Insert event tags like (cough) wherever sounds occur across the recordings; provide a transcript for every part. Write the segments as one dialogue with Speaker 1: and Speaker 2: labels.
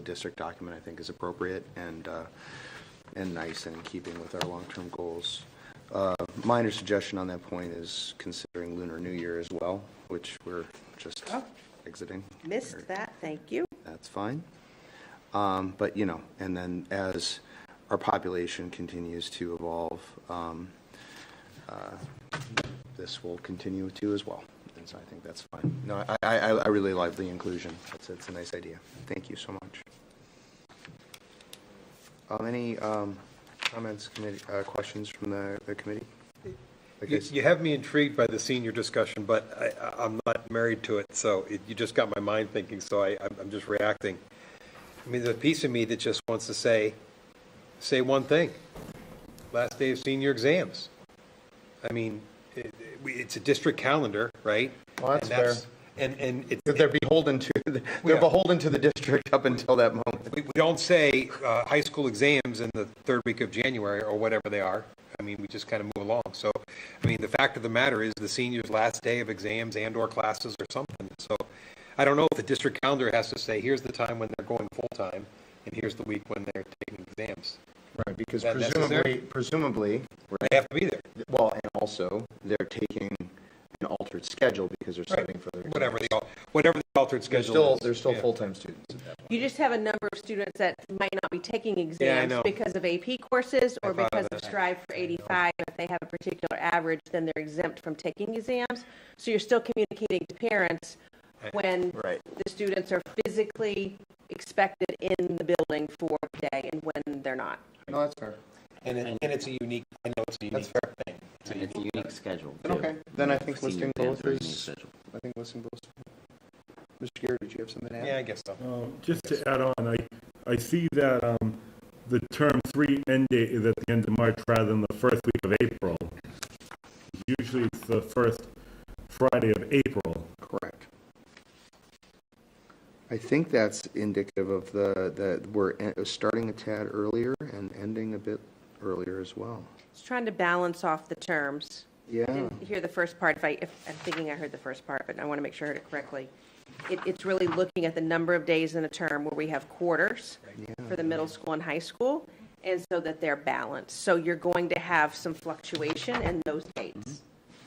Speaker 1: the district document, I think, is appropriate and, uh, and nice and in keeping with our long-term goals. Uh, Minor suggestion on that point is considering Lunar New Year as well, which we're just
Speaker 2: Oh.
Speaker 1: exiting.
Speaker 2: Missed that, thank you.
Speaker 1: That's fine. Um, But, you know, and then as our population continues to evolve, um, uh, this will continue to as well. And so I think that's fine. No, I, I, I really like the inclusion. It's, it's a nice idea. Thank you so much. Um, Any um, comments, committee, uh, questions from the, the committee? Like I
Speaker 3: You
Speaker 1: s-
Speaker 3: you have me intrigued by the senior discussion, but I- I, I'm not married to it, so it- you just got my mind thinking, so I, I'm- I'm just reacting. I mean, there's a piece of me that just wants to say, say one thing. Last day of senior exams. I mean, it, it- we- it's a district calendar, right?
Speaker 1: Well, that's
Speaker 3: And And, and it,
Speaker 1: That they're beholden to, they're beholden to the district up until that moment.
Speaker 3: we we don't say, uh, high school exams in the third week of January or whatever they are. I mean, we just kind of move along. So, I mean, the fact of the matter is the senior's last day of exams and or classes or something. So I don't know if the district calendar has to say, here's the time when they're going full-time and here's the week when they're taking exams.
Speaker 1: Right, because
Speaker 3: That necessary?
Speaker 1: presumably, presumably,
Speaker 3: They have to be there,
Speaker 1: well, and also, they're taking an altered schedule because they're studying for their.
Speaker 3: whatever the, al- whatever the altered
Speaker 4: They're
Speaker 3: schedule
Speaker 4: still,
Speaker 3: is.
Speaker 4: they're still
Speaker 3: Yeah.
Speaker 4: full-time students at that point.
Speaker 2: You just have a number of students that might not be taking
Speaker 3: Yeah, I
Speaker 2: exams
Speaker 3: know.
Speaker 2: because of AP courses or
Speaker 3: thought of
Speaker 2: because of
Speaker 3: that.
Speaker 2: Strive for 85. If they have a particular average, then they're exempt from taking exams. So you're still communicating to parents when
Speaker 4: Right.
Speaker 2: the students are physically expected in the building for the day and when they're not.
Speaker 1: No, that's fair.
Speaker 3: And it, and it's a unique, I know it's a unique thing. It's a
Speaker 5: It's a
Speaker 3: unique-
Speaker 5: unique schedule. too.
Speaker 1: Okay, then I think
Speaker 5: Senior
Speaker 1: listing
Speaker 5: exams
Speaker 1: both
Speaker 5: are a unique
Speaker 1: is,
Speaker 5: schedule.
Speaker 1: I think listing both. Mr. Garrett, did you have something to add?
Speaker 3: Yeah, I guess so.
Speaker 6: Um, Just to add on, I, I see that um, the term three end date is at the end of March rather than the first week of April. Usually it's the first Friday of April.
Speaker 1: Correct. I think that's indicative of the, that we're en- starting a tad earlier and ending a bit earlier as well.
Speaker 2: It's trying to balance off the terms.
Speaker 1: Yeah.
Speaker 2: I didn't hear the first part, if I, if, I'm thinking I heard the first part, but I want to make sure I heard it correctly. It, it's really looking at the number of days in a term where we have quarters for the middle school and high school, and so that they're balanced. So you're going to have some fluctuation in those dates.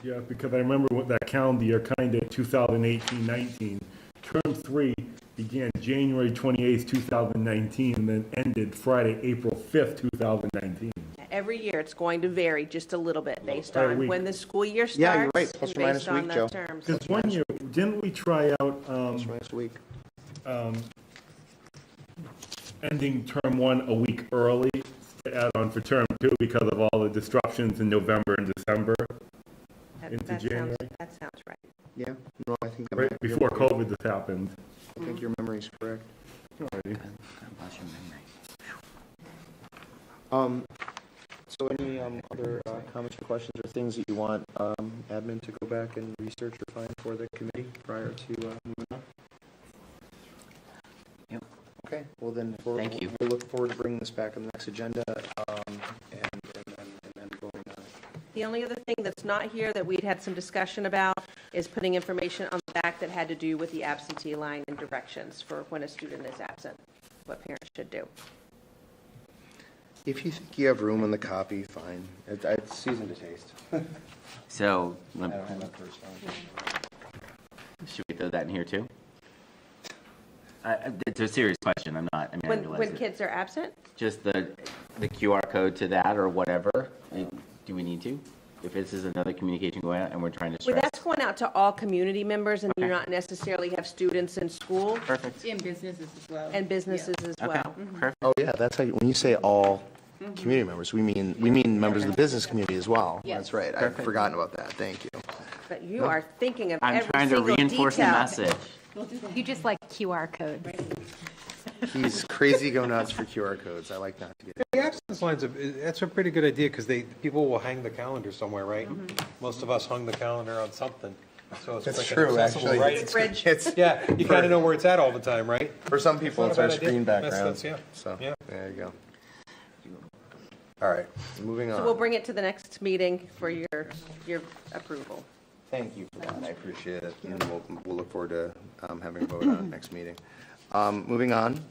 Speaker 1: Mm-hmm.
Speaker 6: Yeah, because I remember what that calendar year, kind of 2018, 19. Term three began January 28th, 2019, and then ended Friday, April 5th, 2019.
Speaker 2: Every year, it's going to vary just a little bit based
Speaker 6: Per
Speaker 2: on
Speaker 6: week.
Speaker 2: when the school year starts.
Speaker 1: Yeah, you're right. Plus
Speaker 2: and
Speaker 1: or minus
Speaker 2: based
Speaker 1: a
Speaker 2: on
Speaker 1: week,
Speaker 2: the
Speaker 1: Joe.
Speaker 2: terms.
Speaker 6: Because one year, didn't we try out, um,
Speaker 1: Last week.
Speaker 6: ending term one a week early to add on for term two because of all the disruptions in November and December,
Speaker 2: That-
Speaker 6: into
Speaker 2: that sounds-
Speaker 6: January.
Speaker 2: That sounds right.
Speaker 1: Yeah, no, I think, that
Speaker 6: right
Speaker 1: might be-
Speaker 6: before COVID this happened.
Speaker 1: I think your memory's correct.
Speaker 5: God bless your memory.
Speaker 1: Um,
Speaker 4: So any um, other uh, comments or questions or things that you want um, admin to go back and research or find for the committee prior to uh, moving on?
Speaker 5: Yep.
Speaker 4: Okay, well then, we'll
Speaker 5: Thank you.
Speaker 4: we'll look forward to bringing this back on the next agenda um, and and then and then voting on it.
Speaker 2: The only other thing that's not here that we'd had some discussion about is putting information on the back that had to do with the absentee line and directions for when a student is absent, what parents should do.
Speaker 1: if you think you have room in the copy, fine. It- It's seasoned to taste.
Speaker 5: So,
Speaker 1: I
Speaker 5: lem-
Speaker 1: don't
Speaker 5: (laughs)
Speaker 1: have that first one.
Speaker 5: should we throw that in here too? I- I- It's a serious question, I'm not, I mean, I
Speaker 2: When,
Speaker 5: realize
Speaker 2: when
Speaker 5: it.
Speaker 2: kids are absent,
Speaker 5: Just the, the QR code to that or whatever, I- do we need to? If this is another communication going out and we're trying to
Speaker 2: well,
Speaker 5: stress,
Speaker 2: that's going out to all community members and you
Speaker 5: Okay.
Speaker 2: not necessarily have students in school
Speaker 5: perfect,
Speaker 7: In businesses as well.
Speaker 2: and businesses as
Speaker 5: okay,
Speaker 2: well.
Speaker 5: perfect.
Speaker 8: Oh, yeah, that's how, you- when you say all
Speaker 2: Mm-hmm.
Speaker 8: community members, we mean, we mean members of the business community as well.
Speaker 7: Yes.
Speaker 8: That's right, I'd forgotten about that, thank you.
Speaker 2: But you are thinking of
Speaker 5: I'm
Speaker 2: every
Speaker 5: trying to
Speaker 2: single
Speaker 5: reinforce the
Speaker 2: detail.
Speaker 5: message.
Speaker 9: You just like QR codes.
Speaker 8: He's crazy go nuts for QR codes, I like that.
Speaker 3: The absence lines, of- that's a pretty good idea, because they, people will hang the calendar somewhere, right? Most of us hung the calendar on something, so it's
Speaker 8: That's
Speaker 3: freaking
Speaker 8: true,
Speaker 3: accessible,
Speaker 8: actually.
Speaker 3: right?
Speaker 8: It's-
Speaker 2: Bridge.
Speaker 8: it's-
Speaker 3: Yeah, you kind of know where it's at all the time, right?
Speaker 8: For some people,
Speaker 3: Not a
Speaker 8: it's our
Speaker 3: bad idea.
Speaker 8: screen
Speaker 3: That's-
Speaker 8: background,
Speaker 3: that's- yeah.
Speaker 8: so,
Speaker 3: Yeah.
Speaker 8: there you go. All right, moving
Speaker 2: So we'll
Speaker 8: on.
Speaker 2: bring it to the next meeting for your, your approval.
Speaker 1: Thank you for that, I appreciate it, and we'll, we'll look forward to um, having a vote on it next meeting. Um, Moving on,